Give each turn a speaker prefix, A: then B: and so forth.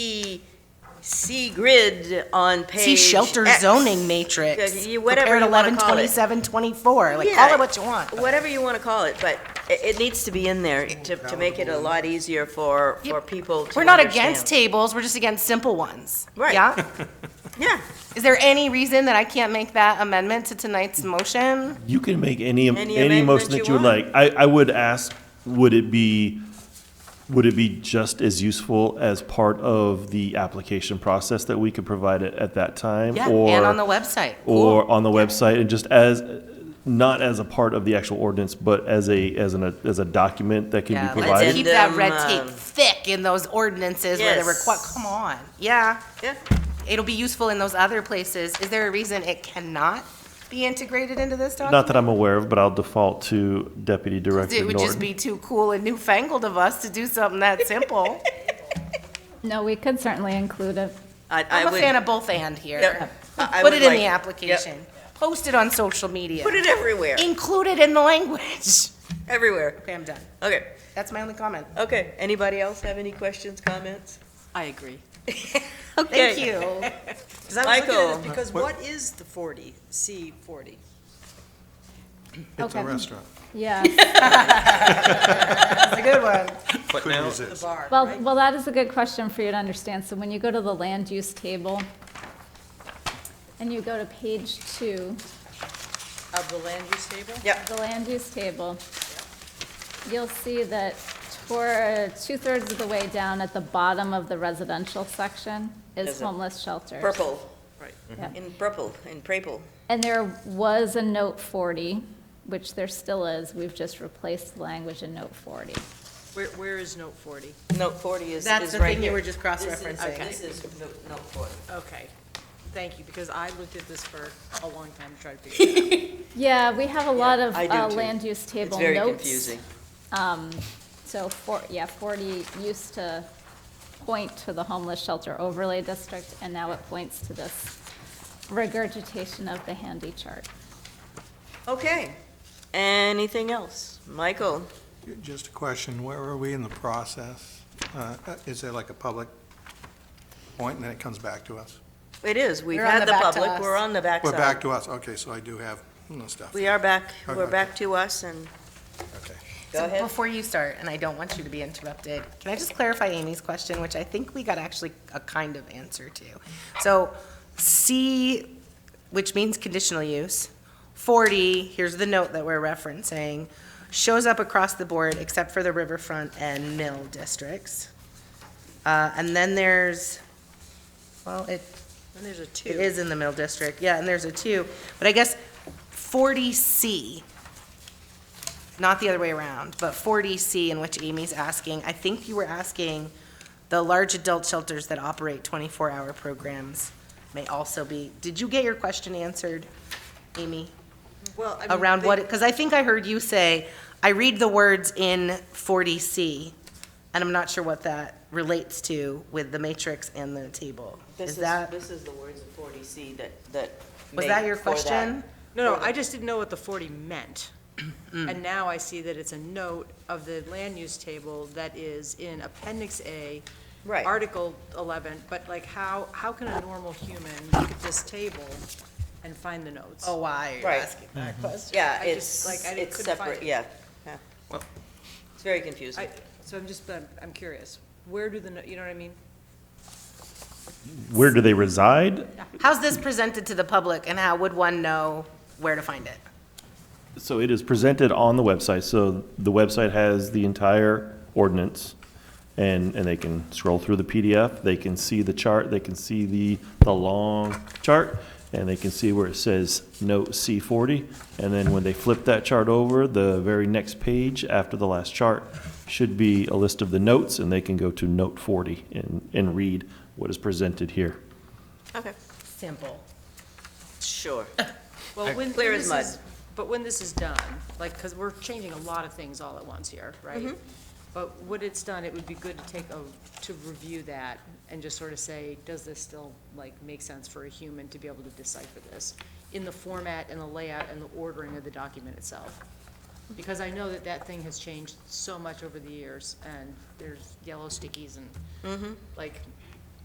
A: C grid on page.
B: See shelter
A: X.
B: zoning matrix.
A: Yeah, you- Whatever
B: Prepared
A: you want to call it.
B: 11/27/24. Like,
A: Yeah.
B: call it what you want.
A: Whatever you want to call it, but it, it needs to be in there to, to make it a lot easier for,
B: Yep.
A: for people to
B: We're not
A: understand.
B: against tables, we're just against simple ones.
A: Right.
B: Yeah?
A: Yeah,
B: Is there any reason that I can't make that amendment to tonight's motion?
C: You can make any,
A: Any
C: any motion
A: amendment
C: that you would like. I, I would ask, would it be, would it be just as useful as part of the application process that we could provide it at that time?
B: Yeah,
C: or-
B: and on the website.
C: Or on the website, and just as, not as a part of the actual ordinance, but as a, as an, as a document that can
B: Yeah,
C: be
B: let's
C: provided?
B: keep that red
A: Addendum,
B: tape
A: um,
B: thick in those ordinances where they're
A: Yes.
B: requ- come on. Yeah,
A: yeah.
B: it'll be useful in those other places. Is there a reason it cannot be integrated into this document?
C: Not that I'm aware of, but I'll default to Deputy Director
B: It would just
C: Norton.
B: be too cool and newfangled of us to do something that simple.
D: No, we could certainly include it.
A: I- I
B: I'm a
A: would-
B: fan of both and here.
A: Yep. I- I
B: Put
A: would
B: it in
A: like-
B: the
A: yep.
B: application. Post it on social media.
A: Put it everywhere,
B: Include it in the language.
A: everywhere.
B: Okay, I'm done.
A: Okay,
B: That's my only comment.
A: okay. Anybody else have any questions, comments?
E: I agree.
B: Thank you.
E: Because I was looking at
A: Michael.
E: this, because what is the 40, C 40?
F: It's a
D: Okay.
F: restaurant.
D: Yeah,
B: That's a good one.
G: But
F: Couldn't
G: now,
E: The
F: resist.
E: bar,
D: well,
E: right?
D: well, that is a good question for you to understand. So when you go to the land use table, and you go to page two,
E: Of the land use table?
A: Yep.
D: the land use table, you'll see that toward, two-thirds of the way down at the bottom of the residential section
A: Is
D: is
A: it
D: homeless shelters.
A: Purple,
D: Yep.
A: in purple, in purple.
D: And there was a note 40, which there still is. We've just replaced the language in note 40.
E: Where, where is note 40?
A: Note forty is, is right
B: That's the thing you
A: here.
B: were just
E: This is-
B: cross-referencing.
E: This is note note 40. Okay, thank you, because I looked at this for a long time to try to figure it out.
D: Yeah, we have a lot of
A: I do
D: uh,
A: too.
D: land use
A: It's
D: table
A: very
D: notes.
A: confusing.
D: Um, So, for- yeah, 40 used to point to the homeless shelter overlay district, and now it points to this regurgitation of the handy chart.
A: Okay. Anything else? Michael?
F: Just a question, where are we in the process? Uh, Is there like a public point and then it comes back to us?
A: It is. We've
B: We're on
A: had
B: the
A: the
B: back to
A: public.
B: us.
A: We're on the backside.
F: We're back to us, okay, so I do have you know, stuff.
A: We are back. We're
F: Okay.
A: back to us and
F: Okay.
A: go
B: So
A: ahead.
B: Before you start, and I don't want you to be interrupted, can I just clarify Amy's question, which I think we got actually a kind of answer to? So C, which means conditional use, 40, here's the note that we're referencing, shows up across the board except for the riverfront and mill districts. Uh, And then there's, well, it
E: And there's a 2.
B: it is in the mill district, yeah, and there's a two, but I guess forty C, not the other way around, but forty C in which Amy's asking, I think you were asking the large adult shelters that operate twenty-four hour programs may also be, did you get your question answered, Amy?
E: Well, I mean,
B: Around
E: they-
B: what, because I think I heard you say, I read the words in forty C, and I'm not sure what that relates to with the matrix and the table.
A: This
B: Is that,
A: This is the words of forty C that, that.
B: was
A: made
B: that your
A: for
B: question?
E: No, no, I just didn't know what the 40 meant.
A: Mm.
E: And now I see that it's a note of the land use table that is in Appendix A,
A: Right.
E: Article 11, but like, how, how can a normal human look at this table and find the notes?
B: Oh, why are you
A: Right.
B: asking that question?
A: Yeah,
E: I
A: it's,
E: just, like, I
A: it's
E: couldn't find
A: separate,
E: it.
A: yeah. yeah.
G: Well-
A: It's very confusing.
E: I, so I'm just, I'm, I'm curious, where do the, no- you know what I mean?
C: Where do they reside?
B: How's this presented to the public, and how would one know where to find it?
C: So it is presented on the website, so the website has the entire ordinance, and, and they can scroll through the PDF, they can see the chart, they can see the, the long chart, and they can see where it says note C forty, and then when they flip that chart over, the very next page after the last chart should be a list of the notes, and they can go to note forty and, and read what is presented here.
A: Okay,
B: Simple.
A: sure.
E: Well, when,
A: Clear
E: when
A: as
E: this
A: mud.
E: is, but when this is done, like, because we're changing a lot of things all at once here,
A: Mm-hmm.
E: right? But when it's done, it would be good to take a, to review that and just sort of say, does this still, like, make sense for a human to be able to decipher this? In the format and the layout and the ordering of the document itself. Because I know that that
A: Mm-hmm.
E: thing has changed so much over the years, and there's yellow stickies and, like,